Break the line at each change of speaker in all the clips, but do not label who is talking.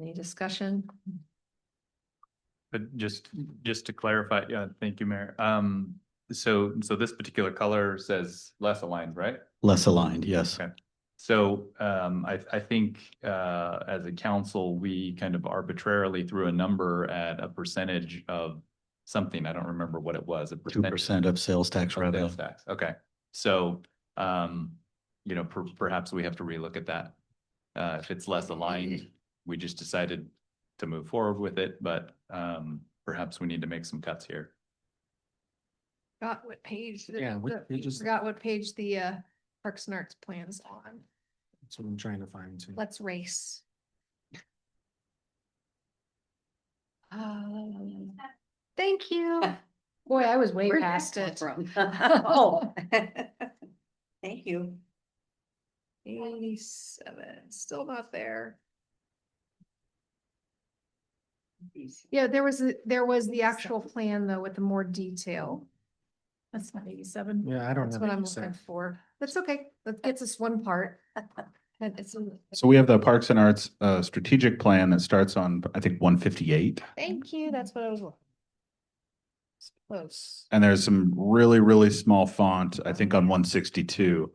Any discussion?
But just, just to clarify, yeah, thank you, Mayor. Um, so, so this particular color says less aligned, right?
Less aligned, yes.
Okay. So, um, I, I think, uh, as a council, we kind of arbitrarily threw a number at a percentage of something. I don't remember what it was, a
Two
percentage.
percent of sales tax
of
revenue.
sales tax. Okay, so, um, you know, per- perhaps we have to relook at that. Uh, if it's less aligned, we just decided to move forward with it, but, um, perhaps we need to make some cuts here.
Forgot what page. the-
Yeah, which
the-
page is-
Forgot what page the uh Parks and Arts plans on.
That's what I'm trying to find too.
Let's race. Um, Thank you.
Boy, I was way
Where'd that
past
come
it.
from?
Oh. Thank you.
Eighty-seven, still not there. Yeah, there was, a- there was the actual plan though with the more detail.
That's not eighty-seven.
Yeah, I don't
That's
have.
what I'm
87.
looking for. That's okay. That gets us one part. And it's, in-
So we have the Parks and Arts uh strategic plan that starts on, I think, one fifty-eight.
thank you. That's what I was. looking. It's Close.
And there's some really, really small font, I think on one sixty-two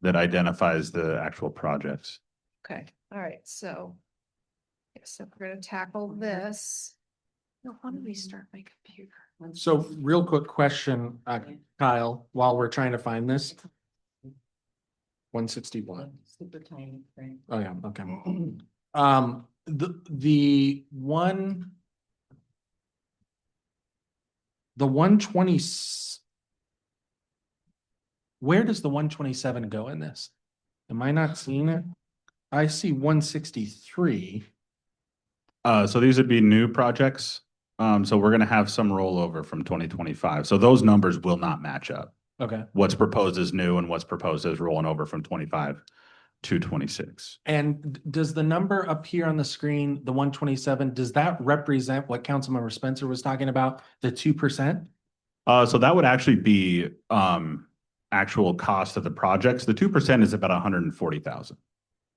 that identifies the actual projects.
Okay, all right, so. yeah, So we're gonna tackle this. Mm-hmm. No, how did we start my computer?
So real quick question, uh, Kyle, while we're trying to find this. One sixty-one.
Super tiny print.
Oh, yeah, okay. Um, the, the one. The one twenty. Where does the one twenty-seven go in this? Am I not seeing it? I see one sixty-three.
Uh, so these would be new projects. Um, so we're gonna have some rollover from twenty twenty-five. So those numbers will not match up.
Okay.
What's proposed is new and what's proposed is rolling over from twenty-five to twenty-six.
And d- does the number up here on the screen, the one twenty-seven, does that represent what Councilmember Spencer was talking about, the two percent?
Uh, so that would actually be, um, actual cost of the projects. The two percent is about a hundred and forty thousand.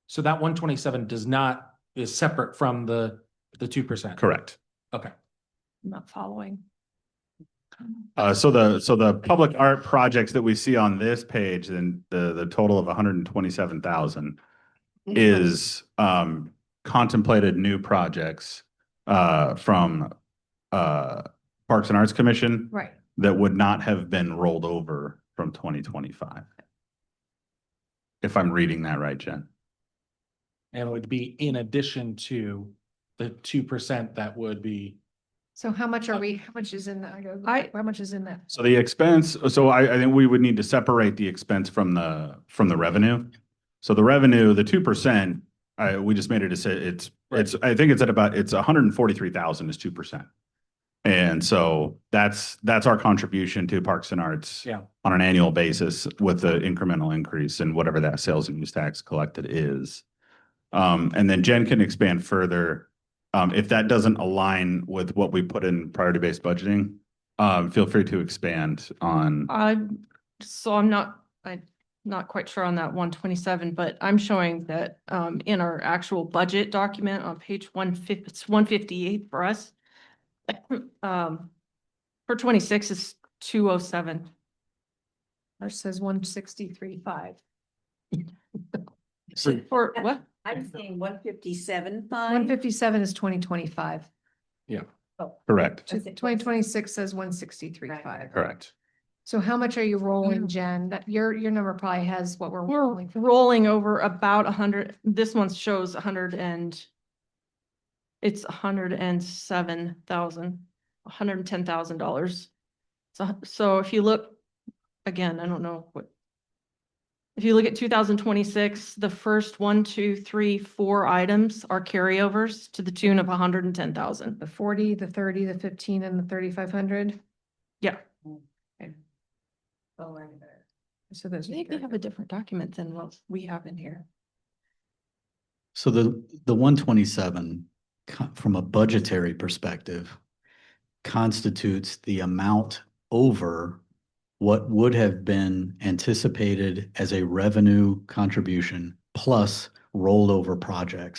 So that one twenty-seven does not, is separate from the, the two percent?
Correct.
Okay.
I'm not following.
Uh, so the, so the public art projects that we see on this page, then the, the total of hundred and twenty-seven thousand is, um, contemplated new projects, uh, from, uh, Parks and Arts Commission
Right,
that would not have been rolled over from twenty twenty-five. If I'm reading that right, Jen.
And it would be in addition to the two percent that would be,
so how much are we, how much is in that? I gotta go
I-
back. How much is in that?
So the expense, so I, I think we would need to separate the expense from the, from the revenue. So the revenue, the two percent, I, we just made it, it's, it's, it's, I think it's at about, it's hundred and forty-three thousand is two percent. And so that's, that's our contribution to Parks and Arts.
Yeah.
On an annual basis with the incremental increase in whatever that sales and use tax collected is. Um, and then Jen can expand further. Um, if that doesn't align with what we put in priority-based budgeting, um, feel free to expand on,
I'm, so I'm not, I'm not quite sure on that one twenty-seven, but I'm showing that um in our actual budget document on page one fifty, it's one fifty-eight for us. Um, for twenty-six is two oh seven.
Ours says one sixty-three five.
For what?
I'm saying one fifty-seven
One
fine.
fifty-seven is twenty twenty-five.
correct,
That's it.
Twenty twenty-six says one sixty-three five.
correct.
So how much are you rolling, Jen? That your, your number probably has what we're
We're
rolling. for.
rolling over about a hundred, this one shows a hundred and it's a hundred and seven thousand, a hundred and ten thousand dollars. So, so if you look, again, I don't know what. If you look at two thousand twenty-six, the first one, two, three, four items are carryovers to the tune of a hundred and ten thousand.
The forty, the thirty, the fifteen and the thirty-five hundred.
Yeah.
Oh, I'm there.
So those. are
Maybe
your-
have a different document than what we have in here.
So the, the one twenty-seven, from a budgetary perspective, constitutes the amount over what would have been anticipated as a revenue contribution plus rolled over projects.